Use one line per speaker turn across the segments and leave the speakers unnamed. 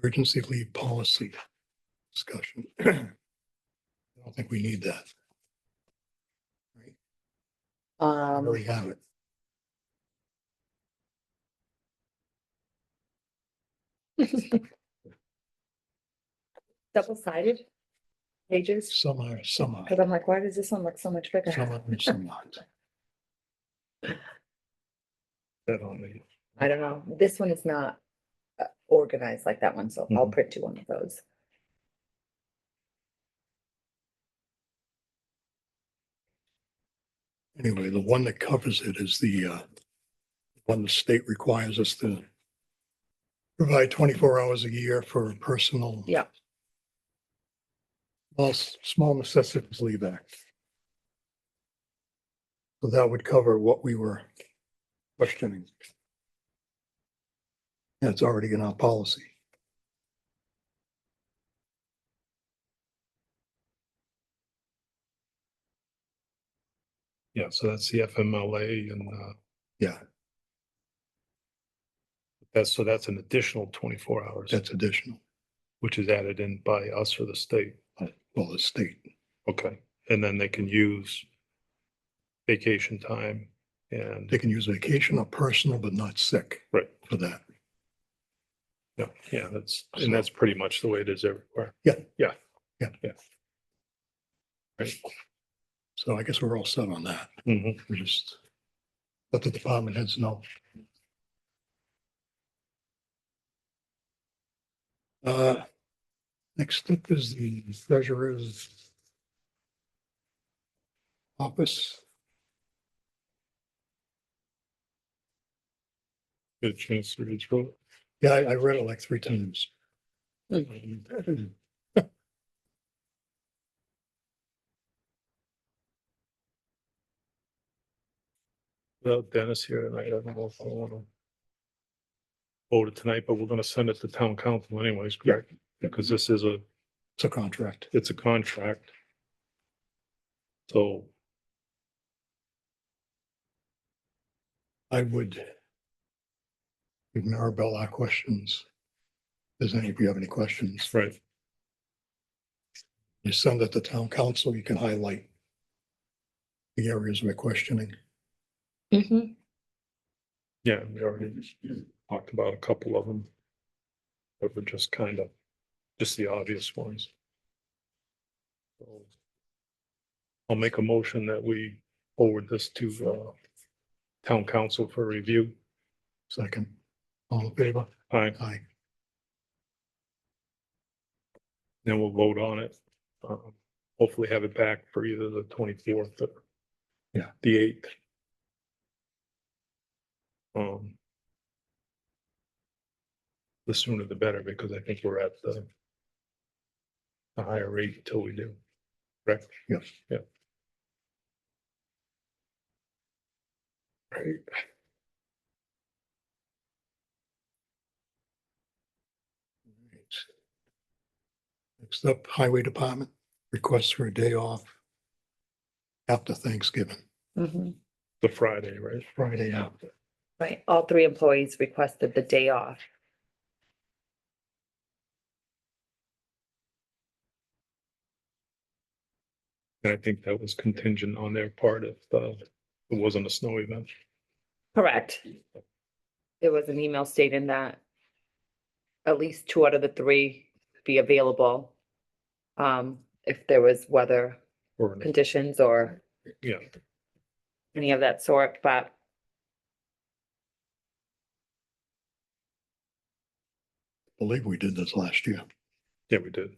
emergency leave policy discussion. I don't think we need that. We
Um,
already have it.
double sided pages,
Some are, some are.
because I'm like, why does this one look so much
Some
bigger?
are, and some aren't. That on the,
I don't know. This one is not uh, organized like that one, so I'll
Mhm.
print you one of those.
anyway, the one that covers it is the uh, one the state requires us to provide twenty-four hours a year for personal.
Yeah.
Well, s- small necessities leave act. So that would cover what we were questioning. That's already in our policy.
Yeah, so that's the FMLA and uh,
Yeah,
that's, so that's an additional twenty-four hours,
that's additional.
which is added in by us or the state.
Well, the state,
Okay, and then they can use vacation time and,
they can use vacation or personal, but not sick.
Right.
For that.
yeah, yeah, that's, and that's pretty much the way it is everywhere.
Yeah.
Yeah.
Yeah.
Yeah. Right.
So I guess we're all set on that.
Mhm.
We just let the department heads know. Uh, Next up is the treasurer's office.
Get a chance to read through. it.
Yeah, I I read it like three times. It's
Without Dennis here tonight, I don't know if I want to vote it tonight, but we're going to send it to town council anyways, correct? Because this is a
a contract.
it's a contract. So,
I would give Maribel our questions. Does any of you have any questions?
right,
you send it to town council, you can highlight the areas we're questioning.
yeah, we already talked about a couple of them. But we're just kind of, just the obvious ones. So, I'll make a motion that we forward this to, uh, town council for review.
Second, all in favor?
Aye,
Aye.
then we'll vote on it. Um, Hopefully have it back for either the twenty-fourth or
Yeah.
the eighth. Um. The sooner the better, because I think we're at the the higher rate until we do, correct?
Yes.
Yeah. Right.
Next up, highway department, requests for a day off after Thanksgiving,
Mhm.
the Friday, right?
Friday after.
Right, all three employees requested the day off.
And I think that was contingent on their part if uh, it wasn't a snow event.
Correct. There was an email stating that at least two out of the three be available. Um, if there was weather
Or, an-
conditions or
yeah,
any of that sort, but
I Believe we did this last year.
yeah, we did.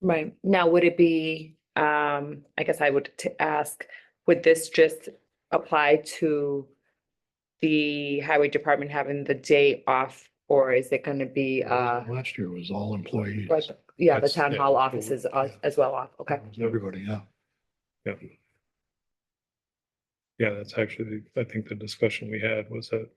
Right. Now, would it be, um, I guess I would t- ask, would this just apply to the highway department having the day off, or is it gonna be, uh,
Last year was all employees.
like, yeah, the
That's-
town
yeah,
hall
that's what we-
offices as,
yeah.
as well off? Okay,
Everybody, yeah.
Yeah. Yeah, that's actually, I think the discussion we had was that